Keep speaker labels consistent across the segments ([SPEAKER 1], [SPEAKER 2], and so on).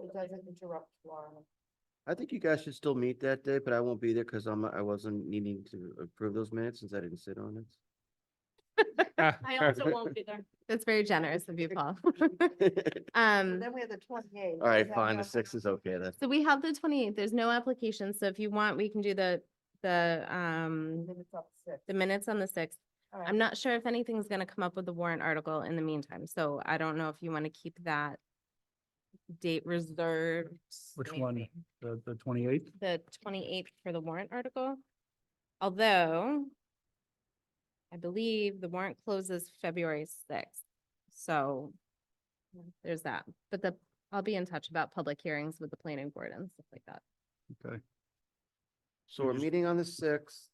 [SPEAKER 1] so it doesn't interrupt tomorrow.
[SPEAKER 2] I think you guys should still meet that day, but I won't be there because I'm, I wasn't needing to approve those minutes since I didn't sit on it.
[SPEAKER 3] Ah.
[SPEAKER 4] I also won't be there.
[SPEAKER 3] That's very generous of you, Paul. Um.
[SPEAKER 1] And then we have the twenty-eighth.
[SPEAKER 2] All right, fine, the sixth is okay then.
[SPEAKER 3] So we have the twenty-eighth, there's no application, so if you want, we can do the, the, um,
[SPEAKER 1] Then it's up to six.
[SPEAKER 3] the minutes on the sixth.
[SPEAKER 1] All right.
[SPEAKER 3] I'm not sure if anything's gonna come up with the warrant article in the meantime, so I don't know if you want to keep that date reserved.
[SPEAKER 5] Which one? The, the twenty-eighth?
[SPEAKER 3] The twenty-eighth for the warrant article. Although I believe the warrant closes February sixth, so there's that. But the, I'll be in touch about public hearings with the planning board and stuff like that.
[SPEAKER 5] Okay.
[SPEAKER 2] So we're meeting on the sixth.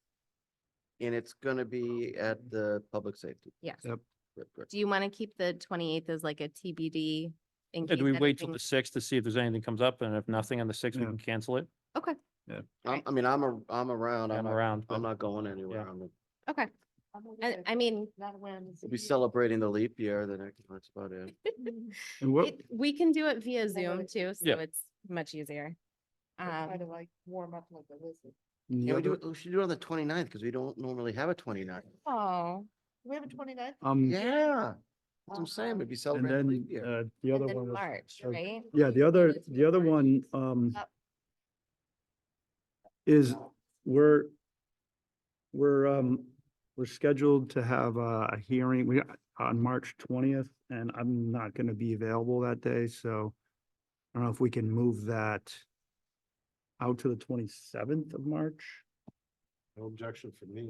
[SPEAKER 2] And it's gonna be at the public safety.
[SPEAKER 3] Yes.
[SPEAKER 5] Yep.
[SPEAKER 2] Good, good.
[SPEAKER 3] Do you want to keep the twenty-eighth as like a TBD? in
[SPEAKER 4] Do
[SPEAKER 3] case
[SPEAKER 4] we wait till
[SPEAKER 3] anything-
[SPEAKER 4] the sixth to see if there's anything comes up and if nothing on the sixth, we
[SPEAKER 5] Yeah.
[SPEAKER 4] can cancel it?
[SPEAKER 3] Okay,
[SPEAKER 2] I'm, I mean, I'm, a- I'm around. I'm
[SPEAKER 4] I'm
[SPEAKER 2] not,
[SPEAKER 4] around.
[SPEAKER 2] I'm
[SPEAKER 4] but-
[SPEAKER 2] not going anywhere.
[SPEAKER 4] Yeah.
[SPEAKER 2] I'm-
[SPEAKER 3] okay.
[SPEAKER 1] I'm gonna
[SPEAKER 3] I,
[SPEAKER 1] get
[SPEAKER 3] I mean,
[SPEAKER 1] Not around.
[SPEAKER 2] We'll be celebrating the leap year, the next, that's about it.
[SPEAKER 5] And what,
[SPEAKER 3] it- we can do it via
[SPEAKER 1] know
[SPEAKER 3] Zoom
[SPEAKER 1] it-
[SPEAKER 3] too, so
[SPEAKER 4] Yeah.
[SPEAKER 3] it's much easier.
[SPEAKER 1] Try
[SPEAKER 3] Um,
[SPEAKER 1] to like warm up like a lizard.
[SPEAKER 5] and the
[SPEAKER 2] Yeah, we do,
[SPEAKER 5] other,
[SPEAKER 2] it- we should do it on the 29th because we don't normally have a 29th.
[SPEAKER 3] oh,
[SPEAKER 1] We have a twenty-ninth?
[SPEAKER 5] um, and
[SPEAKER 2] Yeah, that's what I'm saying, we'd be celebrating the
[SPEAKER 5] then,
[SPEAKER 2] leap year.
[SPEAKER 5] uh, the
[SPEAKER 3] and
[SPEAKER 5] other
[SPEAKER 3] then
[SPEAKER 5] one was,
[SPEAKER 3] March,
[SPEAKER 5] uh,
[SPEAKER 3] right?
[SPEAKER 5] yeah, the other, the other one,
[SPEAKER 3] March.
[SPEAKER 5] um,
[SPEAKER 3] Yep.
[SPEAKER 5] is we're, we're, um, we're scheduled to have a a hearing, we, on March twentieth, and I'm not gonna be available that day, so I don't know if we can move that out to the twenty-seventh of March.
[SPEAKER 6] No objection from me,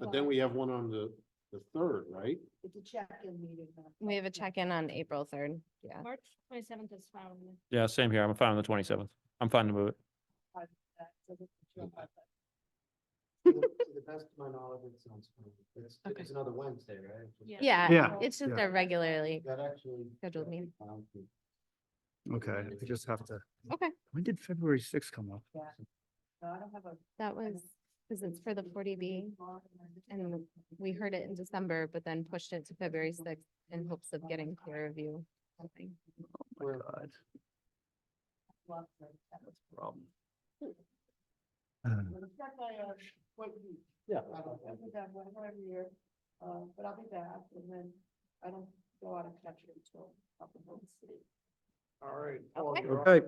[SPEAKER 6] but then we have one on the, the third, right?
[SPEAKER 1] It's a check-in meeting. huh?
[SPEAKER 3] We have a check-in on April third, yeah.
[SPEAKER 7] March twenty-seventh is fine. with me.
[SPEAKER 4] Yeah, same here. I'm fine on the twenty-seventh. I'm fine to move it.
[SPEAKER 1] Uh, so we can chill out.
[SPEAKER 2] To the best of my knowledge, it sounds fine. It's,
[SPEAKER 3] Okay.
[SPEAKER 2] it's another Wednesday, right?
[SPEAKER 7] Yeah.
[SPEAKER 3] Yeah,
[SPEAKER 5] Yeah.
[SPEAKER 3] it's just
[SPEAKER 5] Yeah.
[SPEAKER 3] our regularly,
[SPEAKER 2] That actually.
[SPEAKER 3] Scheduled
[SPEAKER 2] that
[SPEAKER 3] meeting.
[SPEAKER 2] sounds good.
[SPEAKER 5] Okay, I just have to.
[SPEAKER 3] Okay.
[SPEAKER 5] When did February sixth come up?
[SPEAKER 1] Yeah. No, I don't have a.
[SPEAKER 3] that was, because it's for the forty B. And we heard it in December, but then pushed it to February sixth in hopes of getting peer review. something.
[SPEAKER 5] Oh my God, problem. Uh,
[SPEAKER 1] Yeah. Whatever year, uh, but I'll be back and then I don't go out of country until up in the city.
[SPEAKER 6] All right.
[SPEAKER 3] Okay.
[SPEAKER 5] Okay.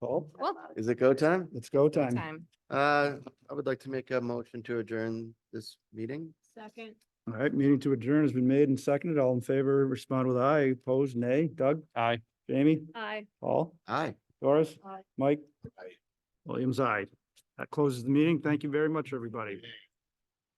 [SPEAKER 5] Paul,
[SPEAKER 3] Well,
[SPEAKER 2] Is it go time?
[SPEAKER 5] it's go time.
[SPEAKER 3] time.
[SPEAKER 2] Uh, I would like to make a motion to adjourn this meeting.
[SPEAKER 7] Second.
[SPEAKER 5] All right, meeting to adjourn has been made and seconded. All in favor, respond with aye. Opposed, nay. Doug,
[SPEAKER 4] Aye.
[SPEAKER 5] Jamie,
[SPEAKER 7] Aye.
[SPEAKER 5] Paul,
[SPEAKER 2] Aye.
[SPEAKER 5] Doris,
[SPEAKER 1] Aye.
[SPEAKER 5] Mike?
[SPEAKER 6] Aye.
[SPEAKER 5] Williams, aye. That closes the meeting. Thank you very much, everybody.